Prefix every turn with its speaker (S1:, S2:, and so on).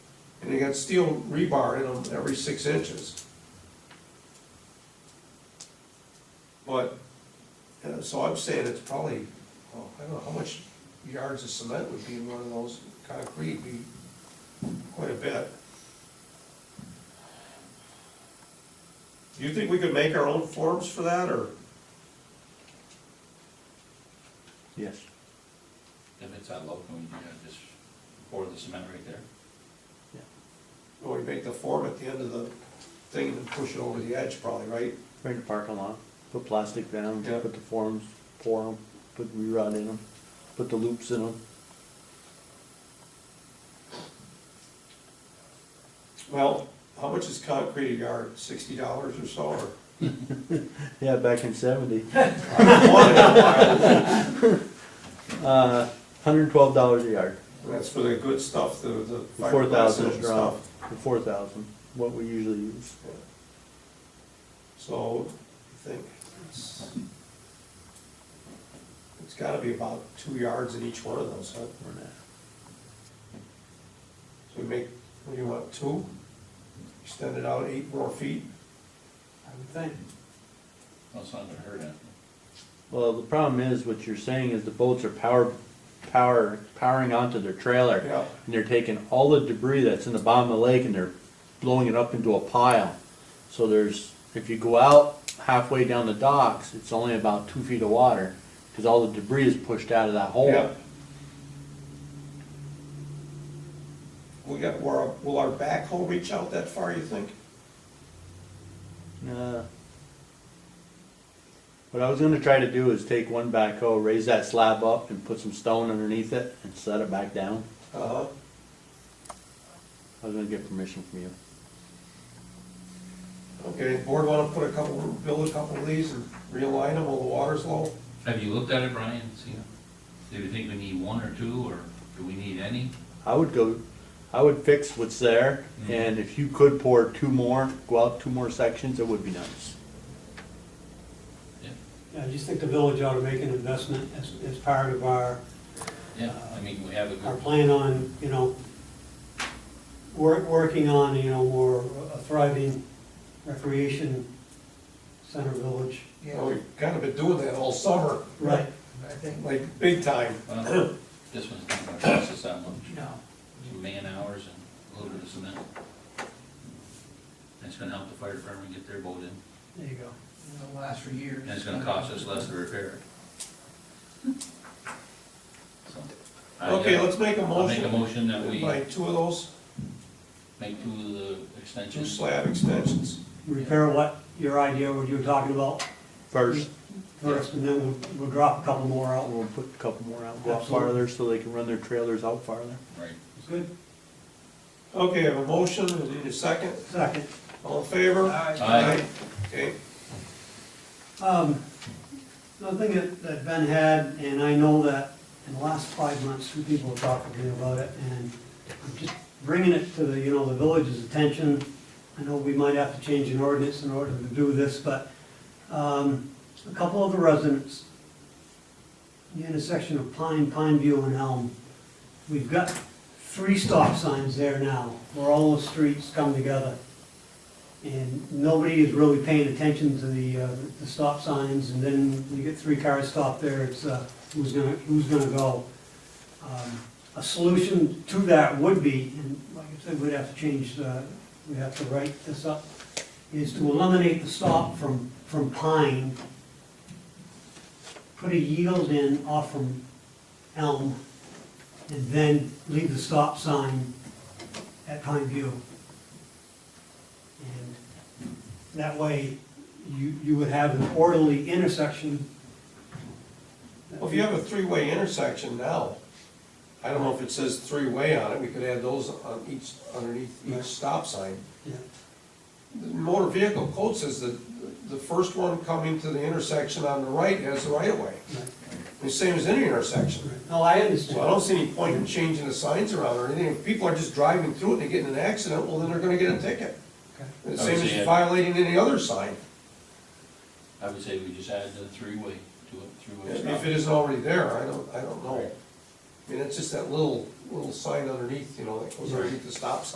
S1: They got steel rebar in them every six inches. But, uh, so I'm saying it's probably, oh, I don't know, how much yards of cement would be in one of those, concrete be quite a bit. Do you think we could make our own forms for that, or?
S2: Yes.
S3: If it's at Locum, you know, just pour the cement right there.
S1: Or we make the form at the end of the thing and push it over the edge probably, right?
S2: Right in the parking lot, put plastic down,
S1: Yeah.
S2: put the forms, pour them, put rerod in them, put the loops in them.
S1: Well, how much is concrete a yard, sixty dollars or so, or?
S2: Yeah, back in seventy, uh, hundred and twelve dollars a yard,
S1: That's for the good stuff, the, the
S2: the four
S1: fiberglass
S2: thousand
S1: and
S2: is drawn,
S1: stuff.
S2: the four thousand, what we usually use.
S1: So, I think it's, it's gotta be about two yards in each one of those, huh?
S2: for that.
S1: So we make, what do you want, two? Extend it out eight more feet?
S4: I would think.
S3: That's not gonna hurt anything.
S2: Well, the problem is, what you're saying is the boats are power, power, powering onto their trailer.
S1: Yeah.
S2: And they're taking all the debris that's in the bottom of the lake and they're blowing it up into a pile. So there's, if you go out halfway down the docks, it's only about two feet of water, cause all the debris is pushed out of that hole.
S1: Yeah. We got, will our- will our backhoe reach out that far, you think?
S2: Uh, What I was gonna try to do is take one backhoe, raise that slab up and put some stone underneath it and set it back down.
S1: Uh-huh.
S2: I was gonna get permission from you.
S1: Okay, board wanna put a couple, build a couple of these and realign them while the water's low?
S3: Have you looked at it, Brian, see, do you think we need one or two, or do we need any?
S2: I would go, I would fix what's there, and if you could pour two more, go out two more sections, it would be nice.
S3: Yeah,
S4: I just think the village ought to make an investment as, as part of our,
S3: yeah, I mean, we have a
S4: our
S3: good,
S4: plan on, you know, work, working on, you know, more a thriving recreation center village.
S1: Well, we've kinda been doing that all summer.
S4: Right.
S1: Like, big time.
S3: well, this one's not gonna cost us that much,
S4: No.
S3: some man hours and a little bit of cement. That's gonna help the fire department get their boat in,
S4: There you go.
S5: It'll last for years.
S3: and it's gonna cost us less to repair it. So, I, uh,
S1: Okay, let's make a
S3: I'll make a
S1: motion.
S3: motion that we
S1: Buy two of those,
S3: make two of the
S1: two
S3: extensions.
S1: slab extensions.
S4: Repair what, your idea, what you were talking about
S2: First,
S4: first, and then we'll, we'll drop a couple more out.
S2: we'll put a couple more out, go out
S4: Absolutely.
S2: farther, so they can run their trailers out farther.
S3: Right.
S4: Good.
S1: Okay, I have a motion, we need a second,
S4: Second.
S1: all in favor?
S3: Aye.
S1: Okay,
S4: Um, Another thing that, that Ben had, and I know that in the last five months, two people have talked to me about it, and I'm just bringing it to the, you know, the village's attention. I know we might have to change an ordinance in order to do this, but, um, a couple of the residents, the intersection of Pine, Pine View and Elm, we've got three stop signs there now, where all the streets come together. And nobody is really paying attention to the, uh, the stop signs, and then you get three cars stopped there, it's, uh, who's gonna, who's gonna go? Um, A solution to that would be, and like I said, we'd have to change, uh, we'd have to write this up, is to eliminate the stop from, from Pine, put a yield in off from Elm, and then leave the stop sign at Pine View. And that way, you, you would have an orderly intersection.
S1: well, if you have a three-way intersection now, I don't know if it says three-way on it, we could add those on each, underneath each
S4: Right.
S1: stop sign.
S4: Yeah,
S1: The motor vehicle code says that the first one coming to the intersection on the right has the right-of-way,
S4: right,
S1: the same as any intersection.
S4: right. No, I understand.
S1: So I don't see any point in changing the signs around or anything, if people are just driving through it and they get in an accident, well, then they're gonna get a ticket.
S4: Okay.
S1: The
S3: I
S1: same
S3: would say
S1: as
S3: it-
S1: violating any other sign,
S3: I would say we just add the three-way to it, three-way
S1: if
S3: stop.
S1: it isn't already there, I don't, I don't know.
S3: Right.
S1: I mean, it's just that little, little sign underneath, you know, that goes underneath the stop sign.